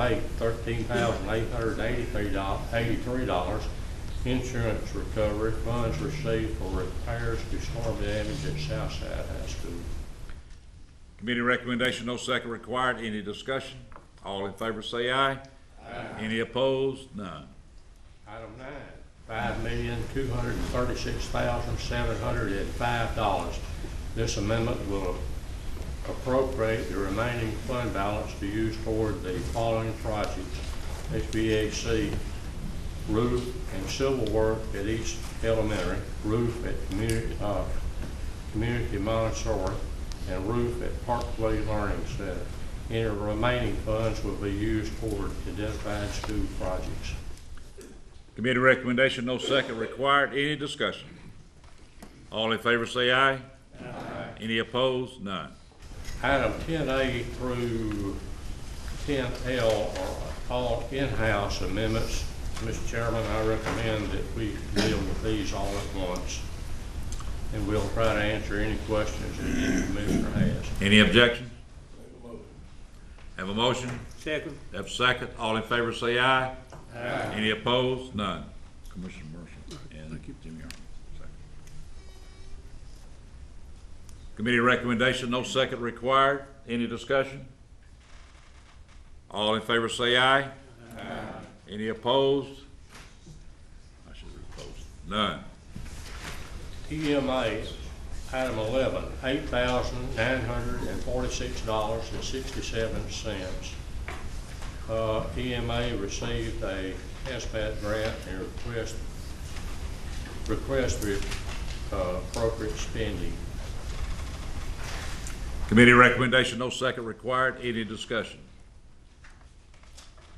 paid thirteen thousand eight hundred eighty-three dollars, eighty-three dollars. Insurance recovery funds received for repairs to storm damage at Southside High School. Committee recommendation, no second required. Any discussion? All in favor say aye. Any opposed? None. Item nine, five million, two hundred and thirty-six thousand, seven hundred and five dollars. This amendment will appropriate the remaining fund balance to use toward the following projects. HVAC roof and civil work at East Elementary, roof at community, uh, community Montessori, and roof at Parkway Learning Center. Any remaining funds will be used toward identified school projects. Committee recommendation, no second required. Any discussion? All in favor say aye. Any opposed? None. Item ten A through ten L are all in-house amendments. Mr. Chairman, I recommend that we deal with these all at once. And we'll try to answer any questions that any commissioner has. Any objections? Have a motion? Second. Have a second? All in favor say aye. Any opposed? None. Commissioner Marshall and Jimmy Arnold. Second. Committee recommendation, no second required. Any discussion? All in favor say aye. Any opposed? I should have opposed. None. TMA, item eleven, eight thousand nine hundred and forty-six dollars and sixty-seven cents. Uh, EMA received a SBAT grant and request, request for uh, appropriate spending. Committee recommendation, no second required. Any discussion?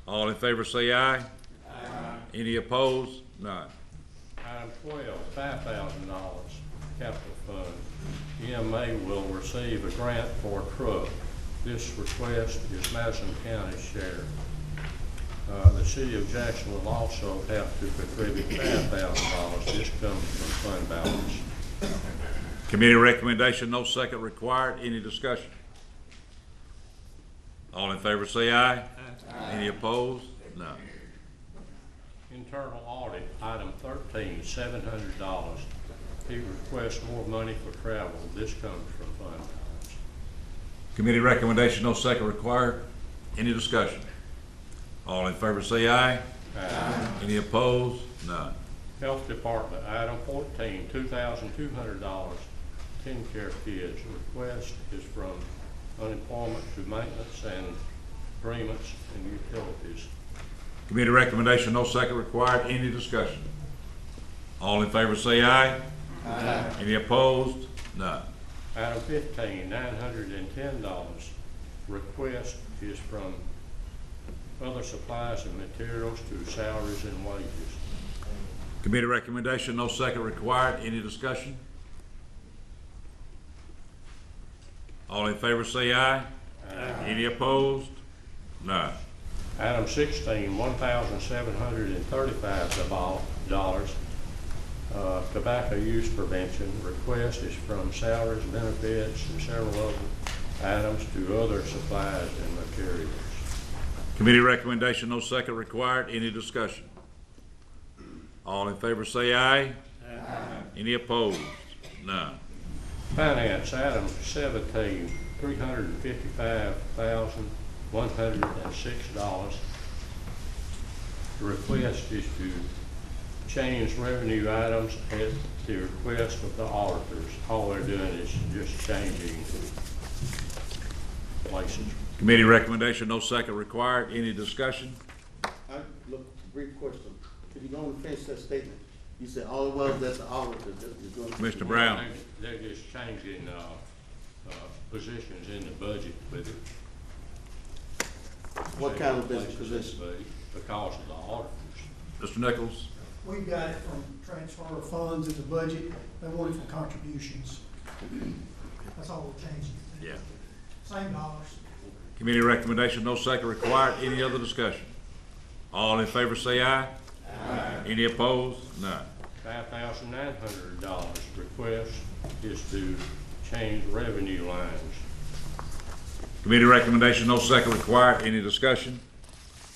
All in favor say aye. Any opposed? None. Item twelve, five thousand dollars, capital fund. EMA will receive a grant for a truck. This request is Madison County's share. Uh, the city of Jackson will also have to contribute five thousand dollars. This comes from fund balance. Committee recommendation, no second required. Any discussion? All in favor say aye. Any opposed? None. Internal audit, item thirteen, seven hundred dollars. He requests more money for travel. This comes from fund balance. Committee recommendation, no second required. Any discussion? All in favor say aye. Any opposed? None. Health Department, item fourteen, two thousand two hundred dollars, ten care kids. Request is from unemployment to maintenance and agreements and utilities. Committee recommendation, no second required. Any discussion? All in favor say aye. Any opposed? None. Item fifteen, nine hundred and ten dollars. Request is from other supplies and materials to salaries and wages. Committee recommendation, no second required. Any discussion? All in favor say aye. Any opposed? None. Item sixteen, one thousand seven hundred and thirty-five dollars. Uh, tobacco use prevention request is from salaries, benefits, and several other items to other supplies and materials. Committee recommendation, no second required. Any discussion? All in favor say aye. Any opposed? None. Finance, item seventeen, three hundred and fifty-five thousand, one hundred and six dollars. The request is to change revenue items at the request of the auditors. All they're doing is just changing places. Committee recommendation, no second required. Any discussion? I, look, brief question. If you're gonna finish that statement, you said all it was, that's the auditor, that you're going Commissioner Brown? They're they're just changing, uh, uh, positions in the budget with it. What kind of business Places in the position? budget Because of the auditors. Mr. Nichols? We got it from transfer of funds in the budget, they want it from contributions. That's all we're changing. Yeah. Same dollars. Committee recommendation, no second required. Any other discussion? All in favor say aye. Any opposed? None. five thousand nine hundred dollars. Request is to change revenue lines. Committee recommendation, no second required. Any discussion?